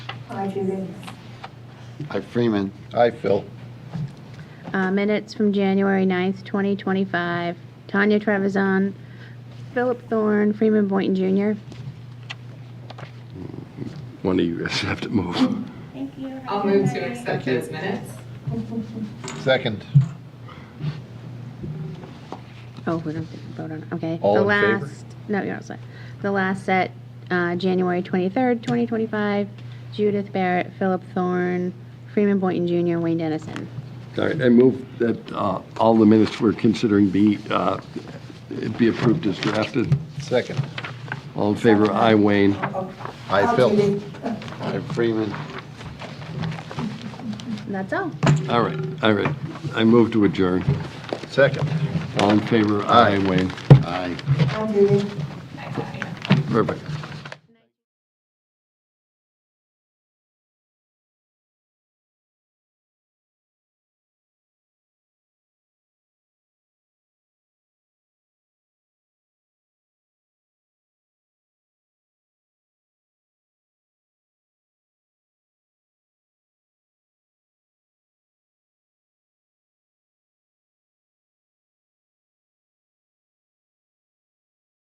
Aye, Judy. Aye, Freeman. Aye, Phil. Uh, Minutes from January 9th, 2025. Tanya Trevisan, Philip Thorne, Freeman Boynton Jr. One of you guys have to move. Thank you. I'll move to accept Thank you. those minutes. Second. Oh, we don't have to vote on, it. okay. All The in favor? last, no, you're not set. The last set, uh, January 23rd, 2025. Judith Barrett, Philip Thorne, Freeman Boynton Jr., Wayne Dennison. All right, I move that uh, all the minutes we're considering be, uh, be approved as drafted. Second. All in favor, aye, Wayne. Aye, Phil. Judy. Aye, Freeman. And that's all. All right, all right. I move to adjourn. Second. All in favor, aye, Wayne. Aye. Aye, Judy. Aye, aye. Perfect.